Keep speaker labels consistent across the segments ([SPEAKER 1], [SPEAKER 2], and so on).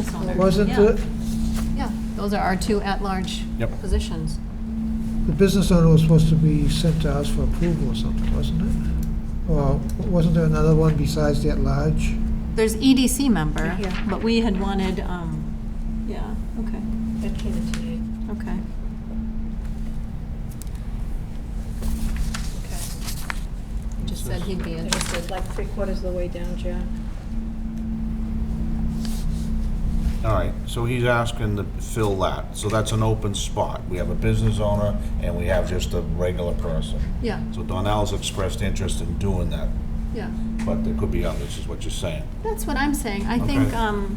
[SPEAKER 1] It's on there.
[SPEAKER 2] Wasn't
[SPEAKER 1] Yeah.
[SPEAKER 2] the,
[SPEAKER 1] Yeah, those are our two at-large
[SPEAKER 3] Yep.
[SPEAKER 1] positions.
[SPEAKER 2] the business owner was supposed to be sent to us for approval or something, wasn't it? Or wasn't there another one besides that large?
[SPEAKER 1] There's EDC member,
[SPEAKER 4] Right here.
[SPEAKER 1] but we had wanted, um, yeah, okay,
[SPEAKER 4] That came in today.
[SPEAKER 1] okay.
[SPEAKER 4] Okay.
[SPEAKER 1] Just said he'd be
[SPEAKER 4] I
[SPEAKER 1] in.
[SPEAKER 4] just did like three quarters of the way down, Jack.
[SPEAKER 3] All right, so he's asking to fill that, so that's an open spot. We have a business owner and we have just a regular person.
[SPEAKER 1] Yeah,
[SPEAKER 3] So Donnell's expressed interest in doing that,
[SPEAKER 1] yeah.
[SPEAKER 3] but there could be others, is what you're saying.
[SPEAKER 1] That's what I'm saying. I think,
[SPEAKER 3] Okay.
[SPEAKER 1] um,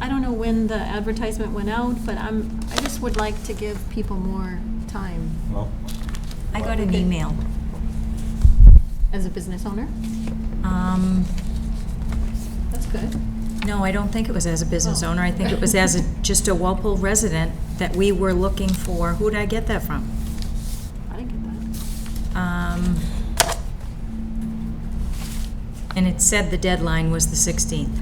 [SPEAKER 1] I don't know when the advertisement went out, but I'm, I just would like to give people more time
[SPEAKER 3] Well,
[SPEAKER 5] I got an email.
[SPEAKER 1] as a business owner.
[SPEAKER 5] Um,
[SPEAKER 1] That's good.
[SPEAKER 5] No, I don't think it was as a business
[SPEAKER 1] Oh.
[SPEAKER 5] owner. I think it was as a, just a Walpole resident that we were looking for. Who did I get that from?
[SPEAKER 1] I didn't get that.
[SPEAKER 5] Um, And it said the deadline was the 16th.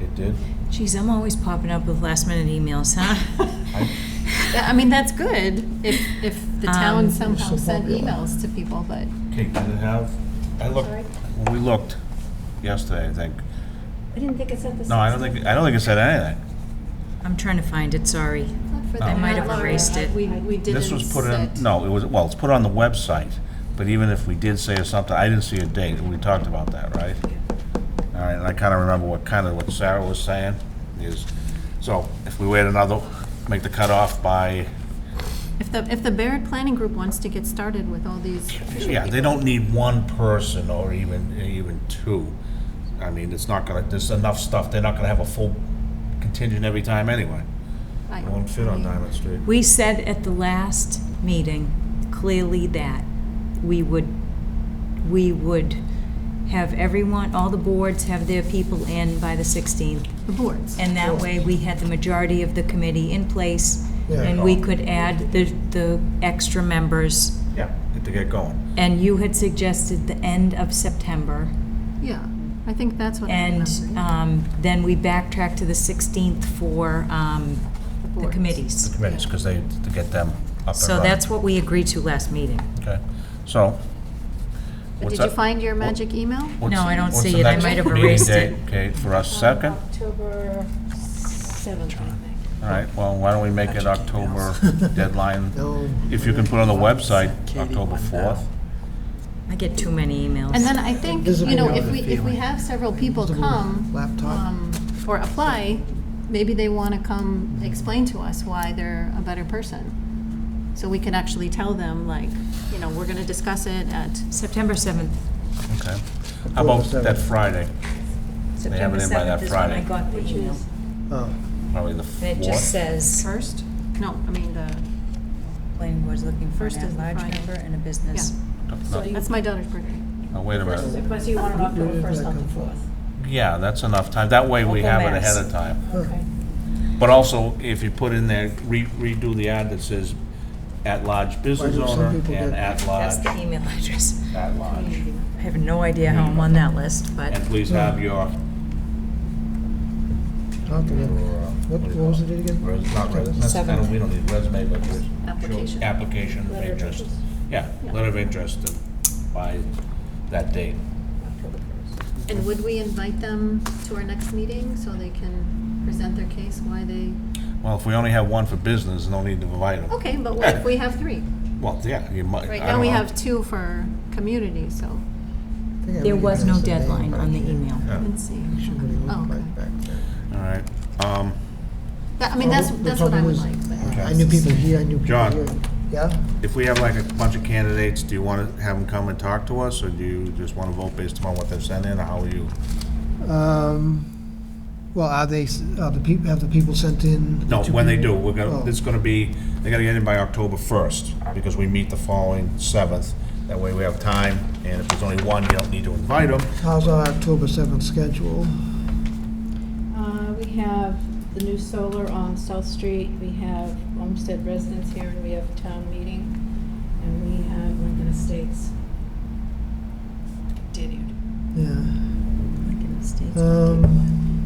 [SPEAKER 3] it did.
[SPEAKER 5] Geez, I'm always popping up with last-minute emails, huh?
[SPEAKER 1] That- I mean, that's good if, if the town
[SPEAKER 5] Um,
[SPEAKER 1] somehow
[SPEAKER 2] So
[SPEAKER 1] sent
[SPEAKER 2] popular.
[SPEAKER 1] emails to people, but,
[SPEAKER 3] Okay, did it have, I looked, when we looked yesterday, I think.
[SPEAKER 4] I didn't think it said the.
[SPEAKER 3] No, I don't think, I don't think it said anything.
[SPEAKER 5] I'm trying to find it, sorry.
[SPEAKER 1] not for the
[SPEAKER 3] I
[SPEAKER 5] might have
[SPEAKER 1] at-large.
[SPEAKER 5] erased it.
[SPEAKER 1] We, we didn't
[SPEAKER 3] Oh. This was put
[SPEAKER 1] set-
[SPEAKER 3] in, no, it was, well, it's put on the website, but even if we did say something, I didn't see a date, we talked about that, right? All right, and I kind of remember what, kind of what Sarah was saying, is, so if we wait another, make the cutoff by,
[SPEAKER 1] If the, if the Barrett Planning Group wants to get started with all these,
[SPEAKER 3] yeah, they don't need one person or even, even two. I mean, it's not gonna, there's enough stuff, they're not gonna have a full contingent every time anyway.
[SPEAKER 1] I-
[SPEAKER 3] It won't fit on Diamond Street.
[SPEAKER 5] We said at the last meeting clearly that we would, we would have everyone, all the boards have their people in by the 16th.
[SPEAKER 1] the boards.
[SPEAKER 5] And that way, we had the majority of the committee in place,
[SPEAKER 2] Yeah.
[SPEAKER 5] and we could add the, the extra members.
[SPEAKER 3] Yeah, to get going.
[SPEAKER 5] And you had suggested the end of September,
[SPEAKER 1] Yeah, I think that's what I
[SPEAKER 5] and
[SPEAKER 1] remember.
[SPEAKER 5] um, then we backtracked to the 16th for um, the
[SPEAKER 1] boards.
[SPEAKER 5] committees.
[SPEAKER 3] Committees, because they, to get them up and running.
[SPEAKER 5] So that's what we agreed to last meeting.
[SPEAKER 3] Okay, so.
[SPEAKER 1] But
[SPEAKER 3] what's
[SPEAKER 1] did you
[SPEAKER 3] that-
[SPEAKER 1] find your
[SPEAKER 3] what-
[SPEAKER 1] magic email?
[SPEAKER 3] what's-
[SPEAKER 5] No, I don't
[SPEAKER 3] what's
[SPEAKER 5] see
[SPEAKER 3] the
[SPEAKER 5] it. I
[SPEAKER 3] next
[SPEAKER 5] might have
[SPEAKER 3] meeting
[SPEAKER 5] erased
[SPEAKER 3] date?
[SPEAKER 5] it.
[SPEAKER 3] Okay, for us, second?
[SPEAKER 4] October seventh, I think.
[SPEAKER 3] All right, well, why don't we make it October deadline?
[SPEAKER 2] No.
[SPEAKER 3] If you can put on the website, October 4th.
[SPEAKER 5] I get too many emails.
[SPEAKER 1] And then I think, you
[SPEAKER 2] Invisible
[SPEAKER 1] know, if
[SPEAKER 2] email.
[SPEAKER 1] we, if we have several people
[SPEAKER 2] Invisible
[SPEAKER 1] come,
[SPEAKER 2] laptop.
[SPEAKER 1] um, or apply, maybe they want to come explain to us why they're a better person. So we can actually tell them, like, you know, we're going to discuss it at,
[SPEAKER 5] September 7th.
[SPEAKER 3] Okay. How about
[SPEAKER 2] October
[SPEAKER 3] that
[SPEAKER 2] 7th.
[SPEAKER 3] Friday, have
[SPEAKER 5] September
[SPEAKER 3] it in by that
[SPEAKER 5] 7th is when I
[SPEAKER 3] Friday.
[SPEAKER 5] got the email.
[SPEAKER 2] Oh,
[SPEAKER 3] probably the
[SPEAKER 5] And it just
[SPEAKER 3] 4th?
[SPEAKER 5] says,
[SPEAKER 1] first? No, I mean, the,
[SPEAKER 5] planning board's looking for
[SPEAKER 1] First is
[SPEAKER 5] a
[SPEAKER 1] the
[SPEAKER 5] large
[SPEAKER 1] Friday.
[SPEAKER 5] member and a business.
[SPEAKER 4] So
[SPEAKER 3] No,
[SPEAKER 4] you-
[SPEAKER 1] that's my daughter's birthday.
[SPEAKER 3] no, wait a minute.
[SPEAKER 4] But you want it October
[SPEAKER 2] did
[SPEAKER 4] first,
[SPEAKER 2] that
[SPEAKER 4] not the
[SPEAKER 2] come from?
[SPEAKER 4] fourth.
[SPEAKER 3] Yeah, that's enough time. That way we
[SPEAKER 5] Local
[SPEAKER 3] have it
[SPEAKER 5] mass.
[SPEAKER 3] ahead of time.
[SPEAKER 4] Okay.
[SPEAKER 3] But also, if you put in there, re- redo the ad that says at-large business
[SPEAKER 2] Why do some
[SPEAKER 3] owner
[SPEAKER 2] people get-
[SPEAKER 3] and
[SPEAKER 5] That's
[SPEAKER 3] at-large,
[SPEAKER 5] the email address.
[SPEAKER 3] at-large.
[SPEAKER 5] I have no idea how I'm on that list, but.
[SPEAKER 3] And please have your,
[SPEAKER 2] I'll have to
[SPEAKER 3] your,
[SPEAKER 2] look.
[SPEAKER 3] uh,
[SPEAKER 2] What,
[SPEAKER 3] do you
[SPEAKER 2] what
[SPEAKER 3] call
[SPEAKER 2] was it again?
[SPEAKER 3] Res- not res- that's- I don't- we don't need resume, but just. show
[SPEAKER 1] Application.
[SPEAKER 3] Application of
[SPEAKER 4] Letter of
[SPEAKER 3] interest.
[SPEAKER 4] interest.
[SPEAKER 3] Yeah,
[SPEAKER 1] Yeah.
[SPEAKER 3] letter of interest and by that date.
[SPEAKER 1] And would we invite them to our next meeting so they can present their case, why they,
[SPEAKER 3] Well, if we only have one for business, no need to invite them.
[SPEAKER 1] okay, but what if we have three?
[SPEAKER 3] Well, yeah, you might.
[SPEAKER 1] Right
[SPEAKER 3] I
[SPEAKER 1] now,
[SPEAKER 3] don't
[SPEAKER 1] we
[SPEAKER 3] know.
[SPEAKER 1] have two for community, so,
[SPEAKER 2] I think I
[SPEAKER 5] There
[SPEAKER 2] really
[SPEAKER 5] was no
[SPEAKER 2] missed the name
[SPEAKER 5] deadline
[SPEAKER 2] back
[SPEAKER 5] on the
[SPEAKER 2] here.
[SPEAKER 5] email.
[SPEAKER 1] let's see.
[SPEAKER 2] Somebody looked
[SPEAKER 1] Oh,
[SPEAKER 2] like
[SPEAKER 1] okay.
[SPEAKER 2] back there.
[SPEAKER 3] All right, um,
[SPEAKER 1] That- I mean, that's,
[SPEAKER 2] Well, the
[SPEAKER 1] that's what I
[SPEAKER 2] trouble
[SPEAKER 1] would
[SPEAKER 2] is,
[SPEAKER 1] like, but.
[SPEAKER 2] I I knew people here, I knew people
[SPEAKER 3] John.
[SPEAKER 2] here. Yeah?
[SPEAKER 3] if we have like a bunch of candidates, do you want to have them come and talk to us? Or do you just want to vote based upon what they've sent in, or how are you?
[SPEAKER 2] Um, well, are they, s- are the people, have the people sent in?
[SPEAKER 3] No, when they do, we're
[SPEAKER 2] Oh.
[SPEAKER 3] gonna, it's gonna be, they gotta get in by October first, because we meet the following seventh. That way we have time, and if there's only one, you don't need to invite them.
[SPEAKER 2] How's our October seventh schedule?
[SPEAKER 4] Uh, we have the new solar on South Street, we have homestead residents here, and we have town meeting, and we have Lincoln Estates. Did you?
[SPEAKER 2] Yeah.
[SPEAKER 5] Lincoln Estates.
[SPEAKER 2] Um,